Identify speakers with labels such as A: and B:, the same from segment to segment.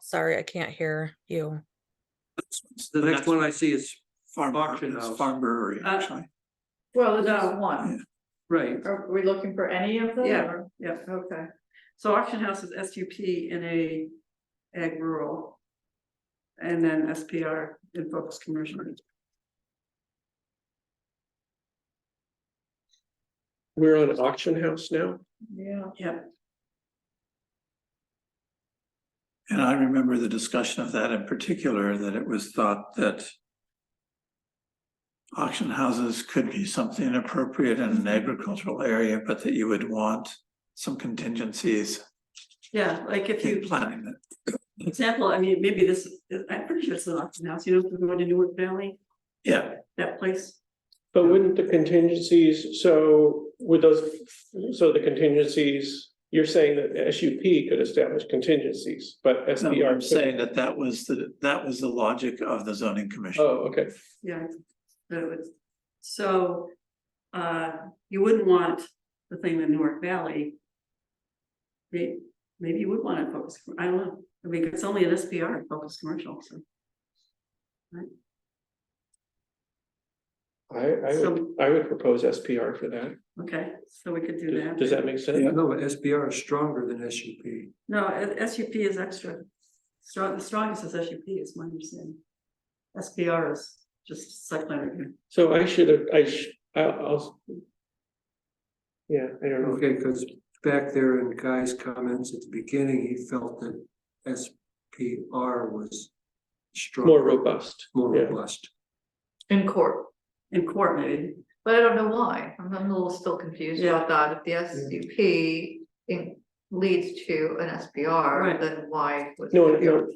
A: Sorry, I can't hear you.
B: The
C: The
B: next
C: next
B: one I see is,
C: Farm,
B: Auction
C: it's
B: house.
C: farm brewery,
B: Uh,
C: actually.
D: Well, it's just one.
B: right,
D: Are we looking for any of them?
B: Yeah.
D: or-
B: yeah,
D: Okay.
B: so auction house is S U P in a ag rural. And then S P R in focused commercial.
E: We're on auction house now?
D: Yeah.
B: Yep,
C: And I remember the discussion of that in particular, that it was thought that. Auction houses could be something appropriate in
B: Mm-hmm.
C: an agricultural area, but that you would want some contingencies
B: yeah, like if
C: in
B: you,
C: planning it.
B: example, I mean, maybe this, I'm pretty sure it's an auction house, you know, if you're going to Newark Valley,
C: Yeah,
B: that place.
E: But wouldn't the contingencies, so would those, so the contingencies, you're saying that S U P could establish contingencies, but S
C: so
E: B R.
C: I'm saying that that was the, that was the logic of the zoning commission.
E: Oh, okay,
B: Yeah, that was, so, uh, you wouldn't want the thing in Newark Valley. May, maybe you would want to focus, I don't know, I mean, it's only an SPR, focus commercial, so.
E: I, I would,
B: So-
E: I would propose S P R for that.
B: Okay, so we could do
E: Does-
B: that.
E: Does that make sense?
F: No, but SBR is stronger than SUP.
B: No, S U P is extra, strong, the strongest is S U P is my understanding. SPR is just site plan review.
E: So I should have, I sh- I'll, I'll. Yeah, I don't know.
F: Okay, because back there in Guy's comments at the beginning, he felt that SPR was
E: More
F: stronger,
E: robust.
F: more
E: yeah.
F: robust.
D: In court,
B: in court maybe,
D: but I don't know why. I'm I'm a little still confused
B: Yeah.
D: about that. If the S U P in leads to an S P R,
B: Right.
D: then why? was
E: No,
D: it-
E: no,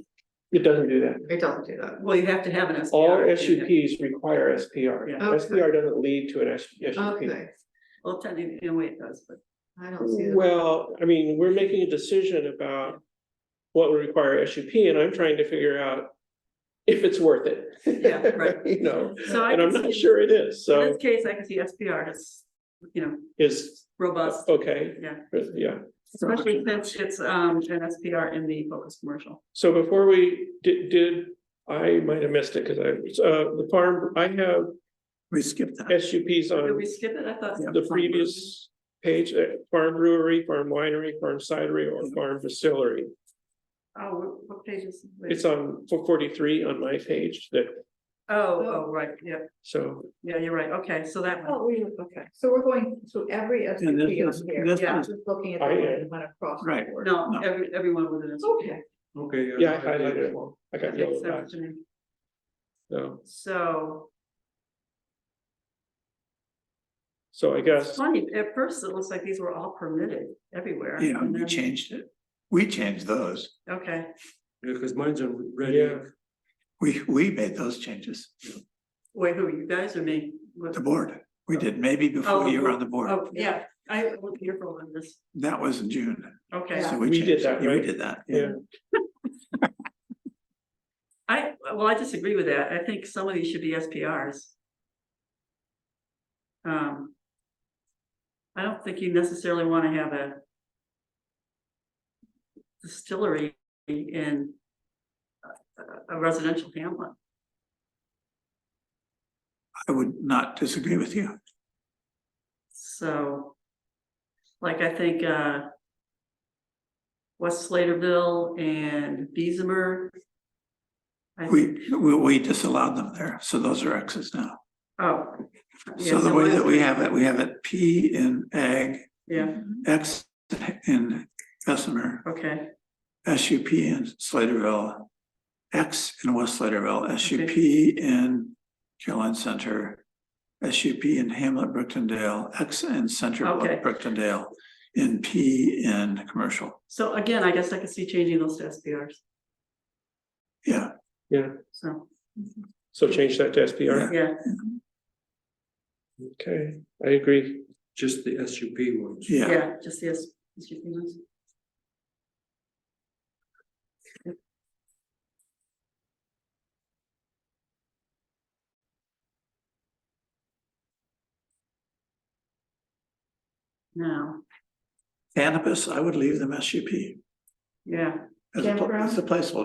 E: it doesn't do that.
D: It doesn't do that.
B: well, you have to have an SPR.
E: All
B: if you
E: S U Ps require S P R.
B: Yeah.
E: S P R doesn't lead to an S U P.
D: Okay,
B: have- Well, technically, in a way it does, but.
D: I don't see that.
E: Well, I mean, we're making a decision about what would require SUP, and I'm trying to figure out if it's worth it.
B: Yeah, right.
E: You know,
B: So I
E: and I'm
B: can
E: not
B: see-
E: sure it is,
B: In
E: so
B: this case, I can see SPR as, you know,
E: is,
B: robust,
E: Oh, okay,
B: yeah,
E: yeah.
B: especially since it's um an SPR in the focus commercial.
E: So before we did, did, I might have missed it, because I, was, uh, the farm, I have
C: We skipped that.
E: SUPs
B: Did
E: on
B: we skip it? I thought.
E: Oh. the previous page, uh, farm brewery, farm winery, farm cidery, or farm distillery.
B: Oh, what- what page is? wait.
E: It's on four forty-three on my page that,
B: Oh, oh, right, yeah,
E: so.
B: yeah, you're right, okay, so that one,
D: Oh, we, okay, so we're going to every S U
C: And this
D: P on
C: is-
D: here.
C: this
B: yeah.
C: is-
D: Just looking at
E: I
D: the one
E: am.
D: that went across. the
C: Right.
D: board.
B: no, every, everyone within it.
D: Okay,
F: Okay.
E: Yeah, I highlighted it. I got
B: Okay,
E: yellow
B: so,
E: dots,
B: Janine,
E: so,
B: So,
E: so I
B: it's
E: guess,
B: funny, at first it looks like these were all permitted everywhere.
C: Yeah,
B: and
C: we
B: then-
C: changed it. We changed those.
B: Okay,
F: Because mine's on red
E: Yeah.
F: ink.
C: We, we made those changes.
B: wait, who, you guys or me? What-
C: The board, we did maybe
B: Oh,
C: before
B: the
C: you were on
B: board.
C: the board.
B: Oh, yeah, I was careful on this,
C: That was in June.
B: okay.
C: So
E: We did
C: changed it.
E: that,
C: Yeah, We
E: right?
C: did that.
E: yeah,
B: I, well, I disagree with that. I think some of these should be SPRs. Um. I don't think you necessarily wanna have a. Distillery in. a- A residential hamlet.
C: I would not disagree with you.
B: So. Like I think, uh. West Sladeville and Beesimer. I think,
C: We, we, we disallowed them there, so those are X's now.
B: oh. yeah,
C: So the
B: no,
C: way
B: I-
C: that we have it, we have it P in ag,
B: Yeah,
C: X in Bessemer,
B: okay,
C: S U P in Sladeville, X in West Sladeville, S U P in Caroline Center, S U P in Hamlet Brooktondale, X in Center
B: Okay.
C: Brooktondale, and P in commercial.
B: so again, I guess I could see changing those to SPRs,
C: Yeah,
B: so.
E: so change that to SPR,
B: Yeah,
E: okay, I agree.
F: just the SUP ones.
C: yeah.
B: yeah, just yes. just your feelings. Now,
C: Cannabis, I would leave them SUP
B: yeah.
C: as a, pl-
D: Campground?
C: as a placeholder.